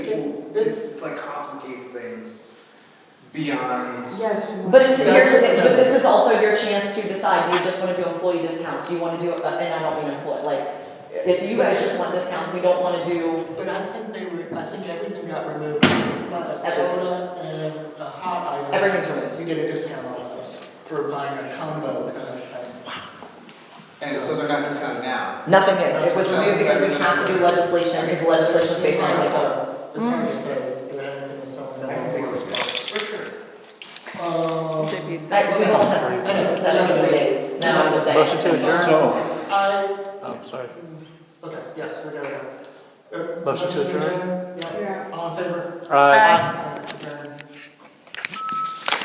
it- this- this like complicates things beyond. Yes. you But want- it's, That's here's the what thing, it but does. this is also your chance to decide, do you just wanna do employee discounts, do you wanna do, uh, and I don't mean employee, like, if you guys just want discounts, we don't wanna do, But I think they were, I think everything got removed, a soda and a hot item. Everything's removed. You get a discount on those for buying a combo kind of thing. And so they're not discounted now. nothing is, it was removed because we have to do legislation, because legislation It's is based on hard like. to, it's hard to say that everything is sold. I can take those back. For sure. Um, JP's I, we all have, I know, sessions three days, now I'm just saying. Motion to adjourn? So, I, Oh, sorry. okay, yes, we got it. Uh, Motion to adjourn? Yeah, Yeah. all in favor? Aye. Aye.